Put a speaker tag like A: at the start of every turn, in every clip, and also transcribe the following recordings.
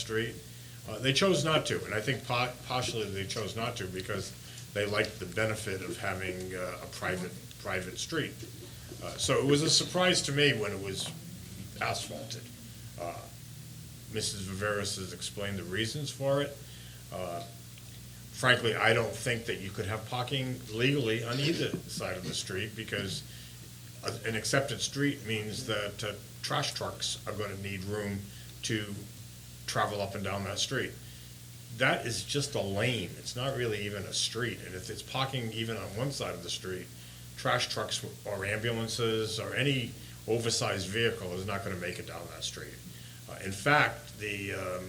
A: Street. Uh, They chose not to, and I think po- partially they chose not to because they liked the benefit of having uh, a private, private street. Uh, So it was a surprise to me when it was asphalted. Uh, Mrs. Viveras has explained the reasons for it. Uh, Frankly, I don't think that you could have parking legally on either side of the street because a- an accepted street means that uh, trash trucks are going to need room to travel up and down that street. That is just a lane. It's not really even a street. And if it's parking even on one side of the street, trash trucks or ambulances or any oversized vehicle is not going to make it down that street. Uh, In fact, the, um,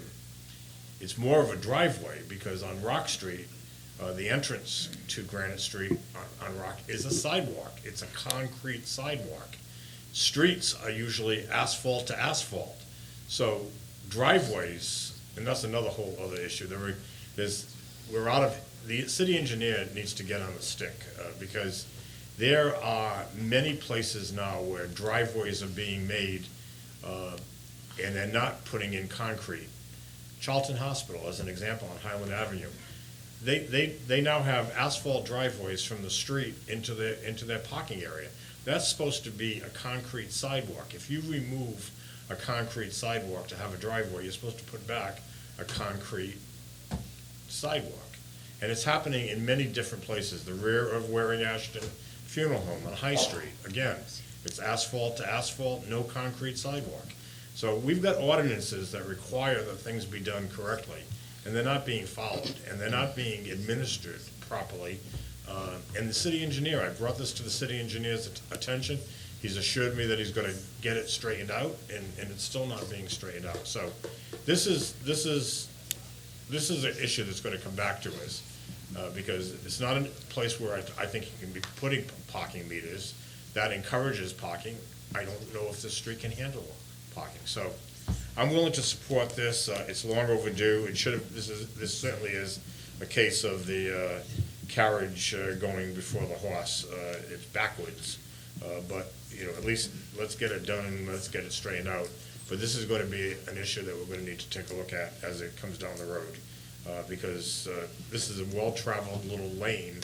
A: it's more of a driveway because on Rock Street, uh, the entrance to Granite Street on, on Rock is a sidewalk. It's a concrete sidewalk. Streets are usually asphalt to asphalt. So driveways, and that's another whole other issue. There were, there's, we're out of, the city engineer needs to get on the stick uh, because there are many places now where driveways are being made uh, and they're not putting in concrete. Charlton Hospital, as an example, on Highland Avenue. They, they, they now have asphalt driveways from the street into their, into their parking area. That's supposed to be a concrete sidewalk. If you remove a concrete sidewalk to have a driveway, you're supposed to put back a concrete sidewalk. And it's happening in many different places, the rear of Waring Ashton Funeral Home on High Street. Again, it's asphalt to asphalt, no concrete sidewalk. So we've got ordinances that require that things be done correctly, and they're not being followed, and they're not being administered properly. Uh, And the city engineer, I brought this to the city engineer's at- attention, he's assured me that he's gonna get it straightened out, and, and it's still not being straightened out. So this is, this is, this is an issue that's gonna come back to us, uh, because it's not a place where I, I think you can be putting parking meters. That encourages parking. I don't know if this street can handle parking. So I'm willing to support this. Uh, it's long overdue. It should have, this is, this certainly is a case of the, uh, carriage uh, going before the horse. Uh, it's backwards. Uh, but, you know, at least let's get it done, let's get it straightened out. But this is gonna be an issue that we're gonna need to take a look at as it comes down the road. Uh, because, uh, this is a well-traveled little lane.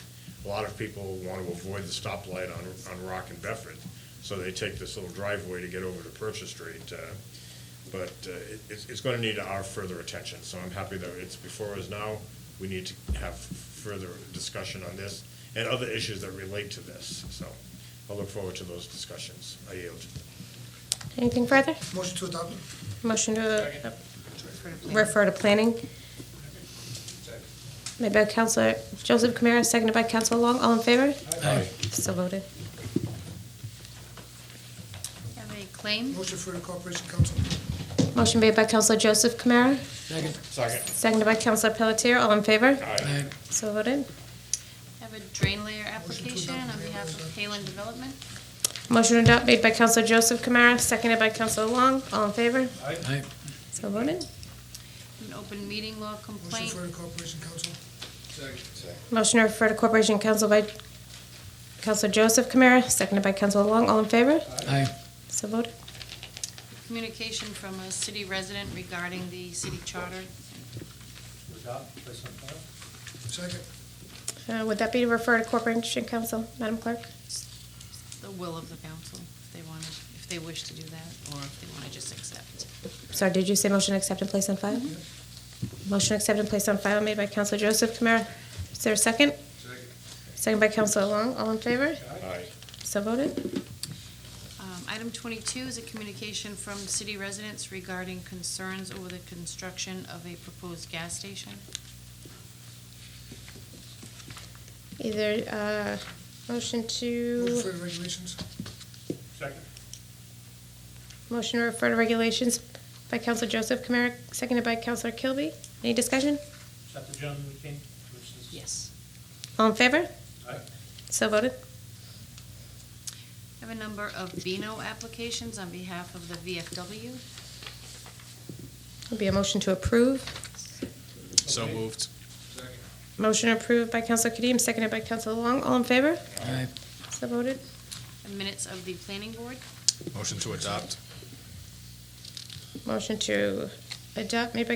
A: A lot of people wanna avoid the stoplight on, on Rock and Bedford. So they take this little driveway to get over to Purchase Street. Uh, But, uh, it, it's, it's gonna need our further attention. So I'm happy that it's before us now. We need to have further discussion on this and other issues that relate to this. So I look forward to those discussions. I yield.
B: Anything further?
C: Motion to adopt.
B: Motion to refer to planning. Made by Counselor Joseph Kamara, seconded by Counselor Long. All in favor? So voted.
D: Have a claim?
C: Motion for the Corporation Council.
B: Motion made by Counselor Joseph Kamara,
E: Second.
A: Second.
B: seconded by Counselor Pelletier. All in favor?
A: Aye.
B: So voted.
D: Have a drain layer application on behalf of Halen Development?
B: Motion to adopt made by Counselor Joseph Kamara, seconded by Counselor Long. All in favor?
E: Aye.
B: So voted.
D: An open meeting law
C: Motion
D: complaint?
C: for the Corporation Council.
B: Motion to refer to Corporation Council by Counselor Joseph Kamara, seconded by Counselor Long. All in favor?
E: Aye.
B: So voted.
D: Communication from a city resident regarding the city charter?
F: Adopt, place on file.
C: Second.
B: Uh, Would that be to refer to Corporation Council, Madam Clerk?
D: The will of the council, if they wanted, if they wish to do that, or if they want to just accept.
B: Sorry, did you say motion to accept and place on file? Motion to accept and place on file made by Counselor Joseph Kamara. Is there a second? Second by Counselor Long. All in favor?
A: Aye.
B: So voted.
D: Um, Item twenty-two is a communication from city residents regarding concerns over the construction of a proposed gas station.
B: Either, uh, motion
C: Motion for
B: to,
C: the regulations.
A: Second.
B: motion to refer to regulations by Counselor Joseph Kamara, seconded by Counselor Kilby. Any discussion?
F: Is that the gentleman who came? Commissioners?
D: Yes.
B: All in favor?
F: Aye.
B: So voted.
D: Have a number of Beano applications on behalf of the VFW.
B: Will be a motion to approve.
G: So moved.
B: Motion approved by Counselor Kadeem, seconded by Counselor Long. All in favor?
E: Aye.
B: So voted.
D: Minutes of the planning board.
G: Motion to adopt.
B: Motion to adopt made by